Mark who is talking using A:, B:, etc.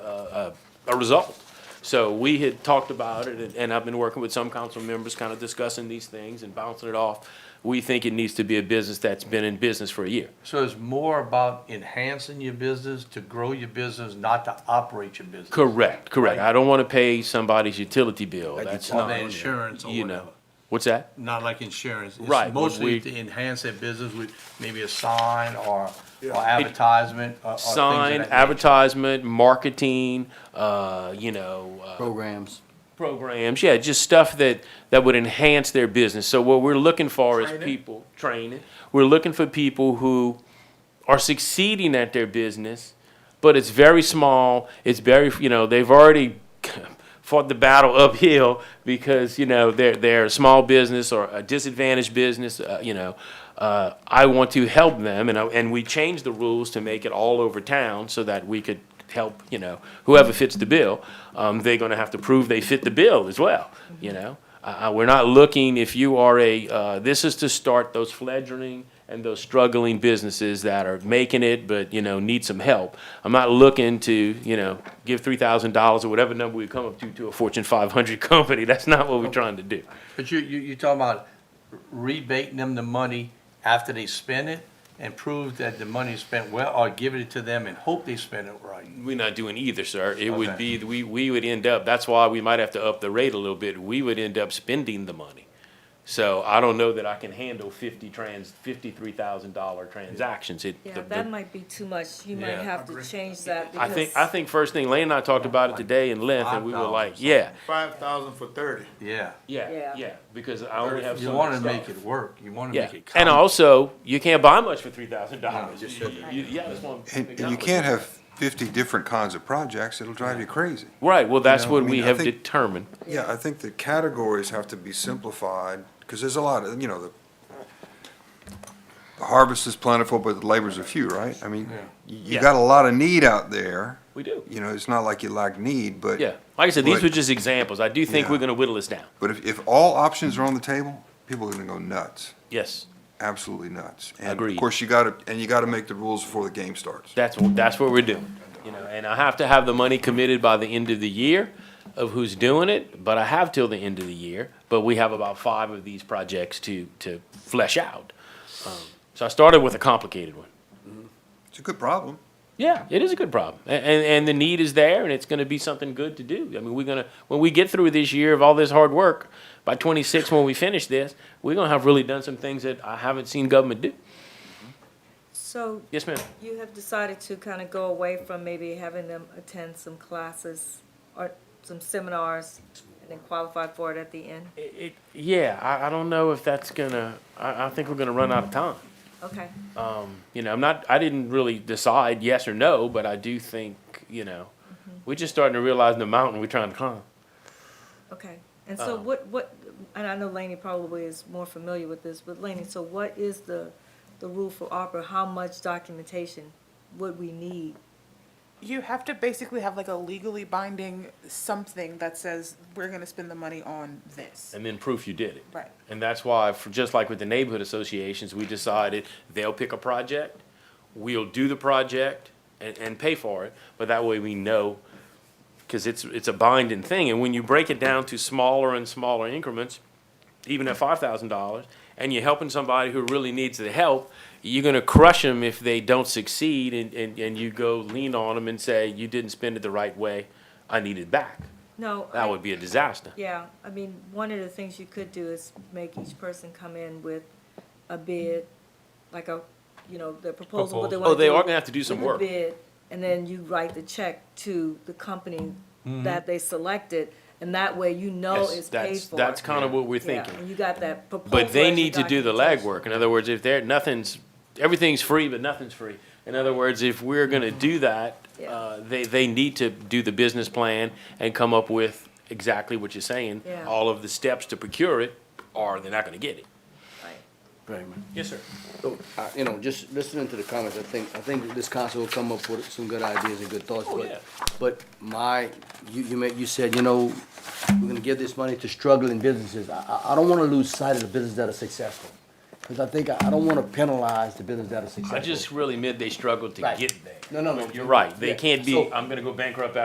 A: a, uh, a result. So we had talked about it, and- and I've been working with some council members, kind of discussing these things and bouncing it off. We think it needs to be a business that's been in business for a year.
B: So it's more about enhancing your business, to grow your business, not to operate your business.
A: Correct, correct. I don't want to pay somebody's utility bill.
C: Like you
A: That's
C: said.
A: not,
B: Or the insurance or
A: you know.
B: whatever.
A: What's that?
B: Not like insurance. It's
A: Right, but we-
B: Mostly to enhance their business with maybe a sign or, or advertisement or- or things of
A: Sign,
B: that nature.
A: advertisement, marketing, uh, you know, uh,
C: programs.
A: programs, yeah, just stuff that, that would enhance their business. So what we're looking for is
B: Training.
A: people, training, we're looking for people who are succeeding at their business, but it's very small, it's very, you know, they've already fought the battle uphill because, you know, they're, they're a small business or a disadvantaged business, uh, you know. Uh, I want to help them, and, I- and we changed the rules to make it all over town so that we could help, you know, whoever fits the bill, um, they're gonna have to prove they fit the bill as well, you know? Uh, uh, we're not looking, if you are a, uh, this is to start those fledgling and those struggling businesses that are making it, but, you know, need some help. I'm not looking to, you know, give three thousand dollars or whatever number we come up to, to a Fortune five hundred company, that's not what we're trying to do.
B: But you, you, you're talking about rebating them the money after they spend it and prove that the money is spent well, or giving it to them and hope they spend it right.
A: We're not doing either, sir. It would
B: Okay.
A: be, we, we would end up, that's why we might have to up the rate a little bit. We would end up spending the money. So I don't know that I can handle fifty trans, fifty-three thousand dollar transactions. It, the-
D: Yeah,
A: the-
D: that might be too much. You might
B: Yeah.
D: have to change that
A: I
D: because.
A: think, I think first thing, Lane and I talked about it today in length, and we were like, yeah,
E: Five thousand for thirty.
B: Yeah.
A: yeah,
D: Yeah.
A: yeah, because I only have
B: You
A: so
B: wanna
A: much
B: make
A: stuff.
B: it work. You wanna
A: Yeah,
B: make it count.
A: and also, you can't buy much for three thousand
B: No,
A: dollars.
B: just shouldn't.
A: Yeah, that's one.
F: And, and you can't have fifty different kinds of projects, it'll drive you crazy.
A: Right, well, that's
F: You know,
A: what
F: I
A: we
F: mean, I
A: have
F: think-
A: determined.
F: Yeah, I think the categories have to be simplified, because there's a lot of, you know, the the harvest is plentiful, but the labors are few, right? I mean, you, you
A: Yeah.
F: got a lot of need out there.
A: We do.
F: You know, it's not like you lack need, but.
A: Yeah, like I said, these
F: Right.
A: were just examples. I do think
F: Yeah.
A: we're gonna whittle this down.
F: But if, if all options are on the table, people are gonna go nuts,
A: Yes,
F: absolutely nuts. And
A: Agreed.
F: of course, you gotta, and you gotta make the rules before the game starts.
A: that's, what- that's what we're doing. You know, and I have to have the money committed by the end of the year of who's doing it, but I have till the end of the year. But we have about five of these projects to, to flesh out. Um, So I started with a complicated one.
F: It's a good problem.
A: Yeah, it is a good problem, A- and and the need is there, and it's going to be something good to do. I mean, we're gonna when we get through this year of all this hard work, by twenty six when we finish this, we're gonna have really done some things that I haven't seen government do.
D: So
A: Yes, ma'am.
D: you have decided to kind of go away from maybe having them attend some classes or some seminars and then qualify for it at the end?
A: It, it, yeah, I, I don't know if that's gonna. I, I think we're gonna run out of time.
D: Okay,
A: You know, I'm not. I didn't really decide yes or no, but I do think you know, we're just starting to realize the mountain we're trying to climb.
D: okay. And so
A: Uh-huh.
D: what, what, and I know Laney probably is more familiar with this, but Laney, so what is the, the rule for Opera? How much documentation would we need?
G: You have to basically have like a legally binding something that says, we're gonna spend the money on this.
A: and then proof you did it.
G: Right.
A: And that's why, for, just like with the neighborhood associations, we decided they'll pick a project, we'll do the project and, and pay for it, but that way we know, because it's, it's a binding thing, and when you break it down to smaller and smaller increments, even at five thousand dollars, and you're helping somebody who really needs the help, you're gonna crush them if they don't succeed, and, and, and you go lean on them and say, you didn't spend it the right way, I need it back.
D: No. I-
A: That would be a disaster.
D: Yeah, I mean, one of the things you could do is make each person come in with a bid, like a, you know, the proposal, what they want to
A: Oh,
D: do.
A: they are gonna have to do some
D: with the
A: work.
D: Bid, and then you write the check to the company that they selected, and that way you know
A: Yes,
D: it's Oh, paid
A: that's-
D: for.
A: That's kind of what we're
D: Yeah,
A: thinking.
D: And you got that proposal.
A: But they
D: as your
A: need to do the
D: documentation.
A: legwork. In other words, if they're, nothing's, everything's free, but nothing's free. In other words, if we're gonna do that,
D: Mm-hmm. Yeah.
A: uh, they, they need to do the business plan and come up with exactly what you're saying.
D: Yeah.
A: All of the steps to procure it, or they're not gonna get it.
D: Right.
A: Yes, sir.
C: So, uh, you know, just listening to the comments, I think, I think this council will come up with some good ideas and good thoughts,
A: Oh,
C: but,
A: yeah.
C: but my, you, you made, you said, you know, we're gonna give this money to struggling businesses. I, I, I don't wanna lose sight of the businesses that are successful. Cause I think, I, I don't wanna penalize the businesses that are successful.
A: I just really meant they struggled to
C: Right.
A: get there.
C: No, no, no.
A: You're right. They
C: Yeah.
A: can't be,
C: So-
A: I'm gonna go bankrupt